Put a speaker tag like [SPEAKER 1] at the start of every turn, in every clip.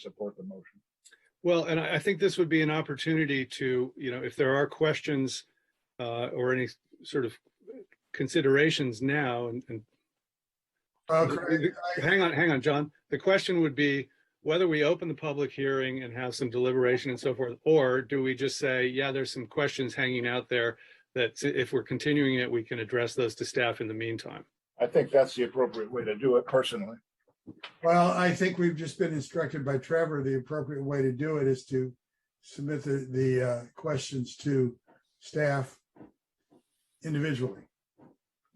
[SPEAKER 1] support the motion.
[SPEAKER 2] Well, and I, I think this would be an opportunity to, you know, if there are questions uh, or any sort of considerations now, and, and
[SPEAKER 1] Uh,
[SPEAKER 2] The-
[SPEAKER 1] Craig, I-
[SPEAKER 2] hang on, hang on, John. The question would be whether we open the public hearing and have some deliberation and so forth, or do we just say, yeah, there's some questions hanging out there that if we're continuing it, we can address those to staff in the meantime.
[SPEAKER 1] I think that's the appropriate way to do it personally.
[SPEAKER 3] Well, I think we've just been instructed by Trevor, the appropriate way to do it is to submit the, the uh, questions to staff individually.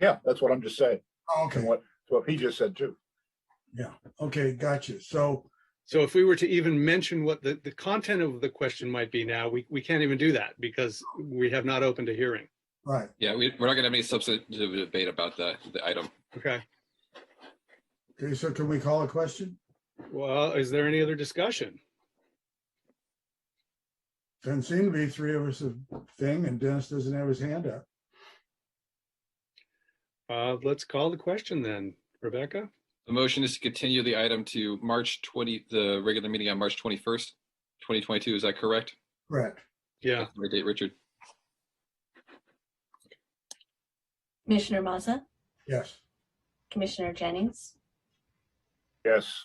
[SPEAKER 1] Yeah, that's what I'm just saying. And
[SPEAKER 3] Oh, Okay,
[SPEAKER 1] what, what he just said too.
[SPEAKER 3] okay, gotcha. So,
[SPEAKER 2] So if we were to even mention what the, the content of the question might be now, we, we can't even do that because we have not opened a hearing.
[SPEAKER 3] right,
[SPEAKER 4] Yeah, we, we're not gonna have any substantive debate about the, the item.
[SPEAKER 2] Okay.
[SPEAKER 3] okay, so can we call a question?
[SPEAKER 2] Well, is there any other discussion?
[SPEAKER 3] Doesn't seem to be three of us a thing and Dennis doesn't have his hand up.
[SPEAKER 2] Uh, let's call the question then. Rebecca?
[SPEAKER 4] The motion is to continue the item to March twenty, the regular meeting on March twenty-first, twenty twenty-two, is that correct?
[SPEAKER 3] Correct.
[SPEAKER 2] Yeah.
[SPEAKER 4] That's the right date, Richard?
[SPEAKER 5] Commissioner Maza,
[SPEAKER 3] Yes.
[SPEAKER 5] Commissioner Jennings,
[SPEAKER 1] Yes,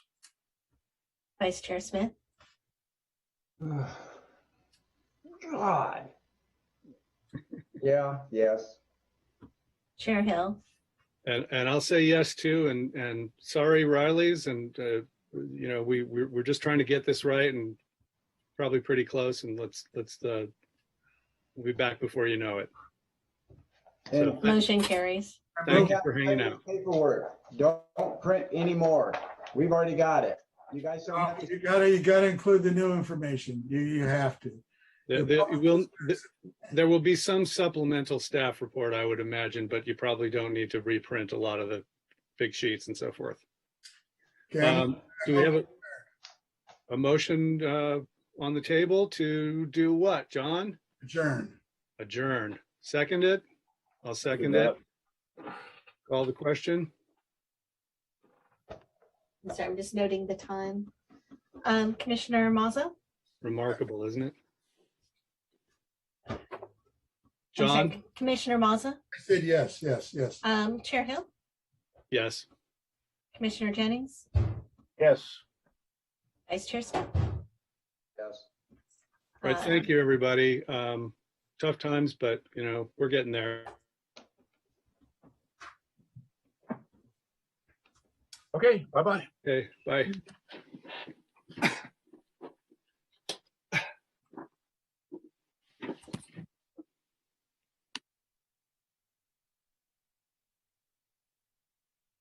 [SPEAKER 5] Vice Chair Smith,
[SPEAKER 6] God. Yeah, yes.
[SPEAKER 5] Chair Hill,
[SPEAKER 2] And, and I'll say yes too, and, and sorry Riley's and, uh, you know, we, we're, we're just trying to get this right and probably pretty close and let's, let's, uh, we'll be back before you know it. So
[SPEAKER 6] And
[SPEAKER 2] th-
[SPEAKER 5] motion carries.
[SPEAKER 2] thank you for hanging out.
[SPEAKER 6] Paperwork, don't print anymore. We've already got it. You guys don't have
[SPEAKER 3] Oh, You
[SPEAKER 6] to.
[SPEAKER 3] gotta, you gotta include the new information. You, you have to.
[SPEAKER 2] There, there it will, th- there will be some supplemental staff report, I would imagine, but you probably don't need to reprint a lot of the big sheets and so forth.
[SPEAKER 3] Okay,
[SPEAKER 2] Um, do we have a, a motion, uh, on the table to do what, John?
[SPEAKER 3] adjourn.
[SPEAKER 2] Adjourn. Seconded? I'll second it. Call the question?
[SPEAKER 5] I'm sorry, I'm just noting the time. Um, Commissioner Maza?
[SPEAKER 2] Remarkable, isn't it?
[SPEAKER 5] I'm sorry,
[SPEAKER 2] John?
[SPEAKER 5] Commissioner Maza,
[SPEAKER 3] I said yes, yes, yes.
[SPEAKER 5] um, Chair Hill,
[SPEAKER 2] Yes.
[SPEAKER 5] Commissioner Jennings,
[SPEAKER 1] yes.
[SPEAKER 5] Vice Chair Smith.
[SPEAKER 6] Yes.
[SPEAKER 2] All
[SPEAKER 5] uh,
[SPEAKER 2] right, thank you, everybody. Um, tough times, but you know, we're getting there.
[SPEAKER 1] Okay, bye-bye.
[SPEAKER 2] Okay, bye.